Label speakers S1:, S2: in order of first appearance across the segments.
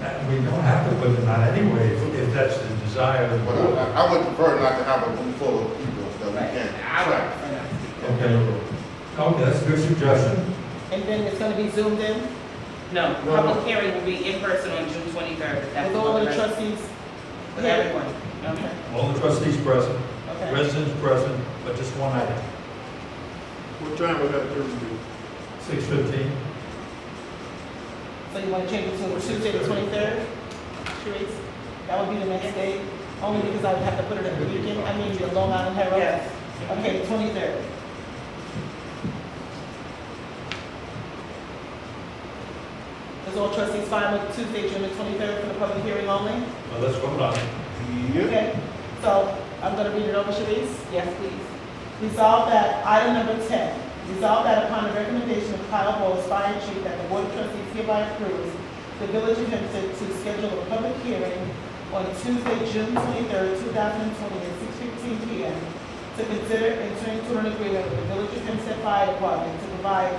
S1: Uh, We don't have to put it on anyway, if if that's the desire of the
S2: But
S1: board.
S2: I, I would prefer not to have a room full of people that we can't track.
S1: Okay, okay, that's a good suggestion.
S3: And then it's gonna be zoomed in
S4: No,
S2: No.
S4: public hearing will be in person on June twenty-third.
S3: with all the trustees?
S4: With everyone.
S3: Okay,
S1: All the trustees present,
S3: okay.
S1: residents present, but just one item,
S2: What time was that Thursday?
S1: six fifteen.
S3: So you wanna change it to Tuesday the twenty-third? Sharice, that would be the next day, only because I would have to put it at the weekend, I mean, the Long Island Herald.
S4: Yes.
S3: Okay, twenty-third. Is all trustees fine with Tuesday, June the twenty-third for the public hearing only?
S1: Well, let's vote on it.
S2: Yeah.
S3: Okay, so I'm gonna read it over, Sharice.
S4: Yes, please.
S3: Resolve that, item number ten, resolve that upon the recommendation of Kyle Bowles, fire chief, that the board of trustees hereby approves the village of Hempstead to schedule a public hearing on Tuesday, June twenty-third, two thousand and twenty, at six fifteen P M, to consider entering into an agreement with the village of Hempstead Fire Department to provide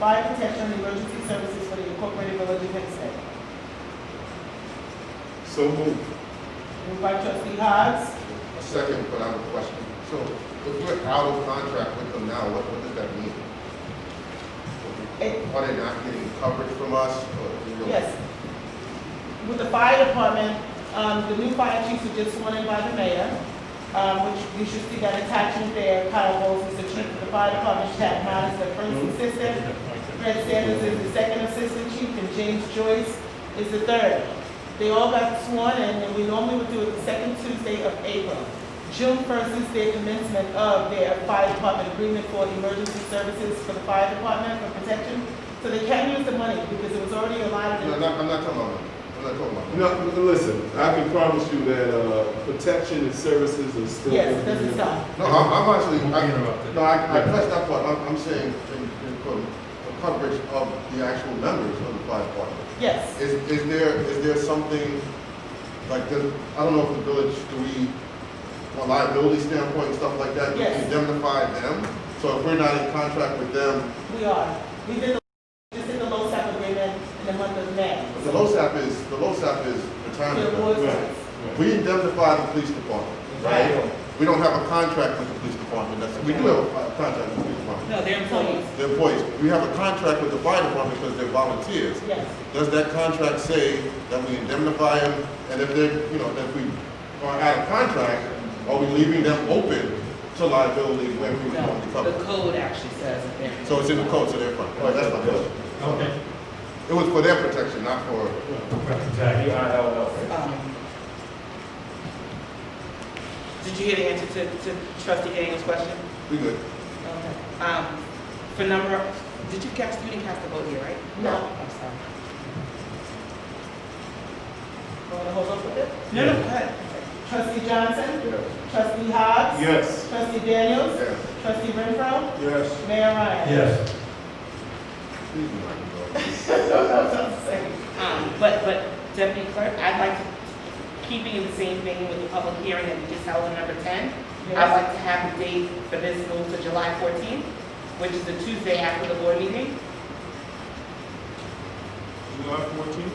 S3: fire protection and emergency services for the incorporated village of Hempstead.
S2: So moved.
S3: Moved by trustee Hogs,
S2: A Second, but I have a question. So if we're out of contract with them now, what, what does that mean?
S3: It-
S2: Are they not getting coverage from us or? you know-
S3: Yes. With the fire department, um, the new fire chiefs were just sworn in by the mayor, um, which you should see that attachment there. Kyle Bowles is the chief of the fire department, Chad Mott is the first assistant, Fred Sanders is the second assistant chief, and James Joyce is the third. They all got sworn in, and we normally would do it the second Tuesday of April. June first is their commencement of their fire department agreement for emergency services for the fire department for protection. So they can use the money because it was already allotted. in-
S2: No, I'm not, I'm not talking about, that. I'm not talking about. that.
S5: No, listen, I can promise you that, uh, protection and services are still.
S3: Yes, it doesn't stop.
S2: No, I'm, I'm actually,
S1: Won't be
S2: I,
S1: interrupted.
S2: no, I, I pressed that part, I'm, I'm saying, in, in quote, the coverage of the actual members of the fire department.
S3: Yes,
S2: Is, is there, is there something, like, does- I don't know if the village, do we, from a liability standpoint and stuff like that, do we
S3: Yes.
S2: indemnify them? So if we're not in contract with them,
S3: we are. We did the, just did the LoSAP agreement in the month of May.
S2: but the LoSAP is, the LoSAP is retirement. plan.
S3: The awards-
S5: Right.
S2: We indemnify the police department, right?
S3: Right.
S2: We don't have a contract with the police department, that's, we do have a fi- contract with the police department.
S4: No, they're employees.
S2: They're employees, we have a contract with the fire department because they're volunteers.
S3: Yes,
S2: Does that contract say that we indemnify them, and if they're, you know, if we are out of contract, are we leaving them open to liability when we would normally
S4: No,
S2: cover?
S4: the code actually says that they're.
S2: So it's in the code, so they're fine, Right, that's my question.
S1: Okay.
S2: It was for their protection, not for,
S1: Exactly.
S4: Um, Did you hear the answer to, to trustee Daniel's question?
S2: we good.
S4: Okay. Um, for number, did you cast, you didn't cast the vote here, right? Oh,
S3: no,
S4: I'm sorry.
S3: we're gonna hold up with it.
S4: No, no, go ahead.
S3: Trustee Johnson, trustee Hobbs,
S5: Yes.
S3: trustee Daniels,
S2: Yes.
S3: trustee Renfro,
S5: Yes.
S3: Mayor Ryan.
S1: Yes,
S2: Please, Mike, go.
S4: Um, but, but Deputy Clerk, I'd like, to- keeping in the same vein with the public hearing that we just held on number ten, I'd
S3: Yes.
S4: like to have the date for this moved to July fourteenth, which is the Tuesday after the board meeting,
S5: July fourteenth?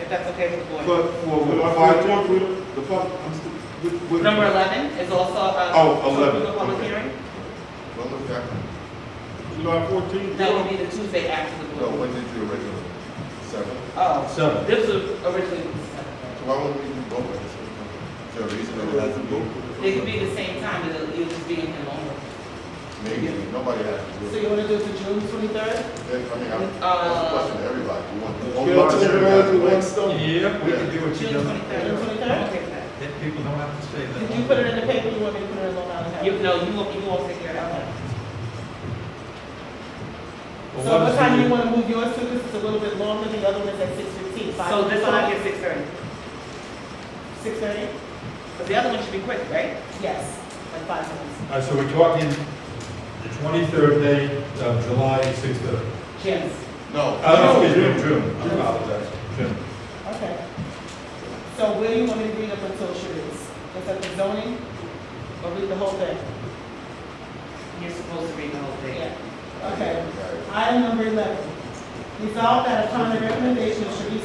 S4: if that's okay with the board.
S5: But for the fire department, the pub, I'm still, with, with.
S4: Number eleven is also, uh.
S5: Oh, 11,
S4: The public
S5: okay.
S4: hearing,
S2: Well, look back,
S5: July fourteenth?
S4: that would be the Tuesday after the
S2: so
S4: board.
S2: when did you originally, seven?
S4: Oh,
S1: seven.
S4: this was originally,
S2: So why wouldn't we do both at the same time? Is there a reason that it has to be?
S4: they could be the same time, it'll, it'll just be in the longer.
S2: Maybe, nobody has to
S3: So
S2: do it.
S3: you wanna do it for June twenty-third?
S2: Then, I mean, I'm, that's a
S4: Uh,
S2: question to everybody, you want.
S5: Kill two birds with one stone.
S1: Yeah, we can do what you do.
S4: June twenty-third.
S3: June 23rd?
S1: Then people don't have to say that.
S3: Did you put it in the paper, you want me to put it in Long Island Herald?
S4: You, no, you won't, you won't take care of that one.
S1: Well,
S3: So what
S1: is
S3: time
S1: the-
S3: do you wanna move yours to, because it's a little bit longer, the other one's at six fifteen.
S4: So this one is six thirty,
S3: Six thirty?
S4: but the other one should be quick, right?
S3: Yes, like five minutes.
S1: All right, so we're talking the twenty-third day of July, six-thirty.
S3: Yes.
S2: No.
S1: Oh, excuse me, June, I apologize, June.
S3: Okay. So where you want me to read up until Sharice? Is that the zoning? Or read the whole thing?
S4: You're supposed to read the whole thing.
S3: Yeah. Okay. Item number eleven. Resolve that upon the recommendation of Sharice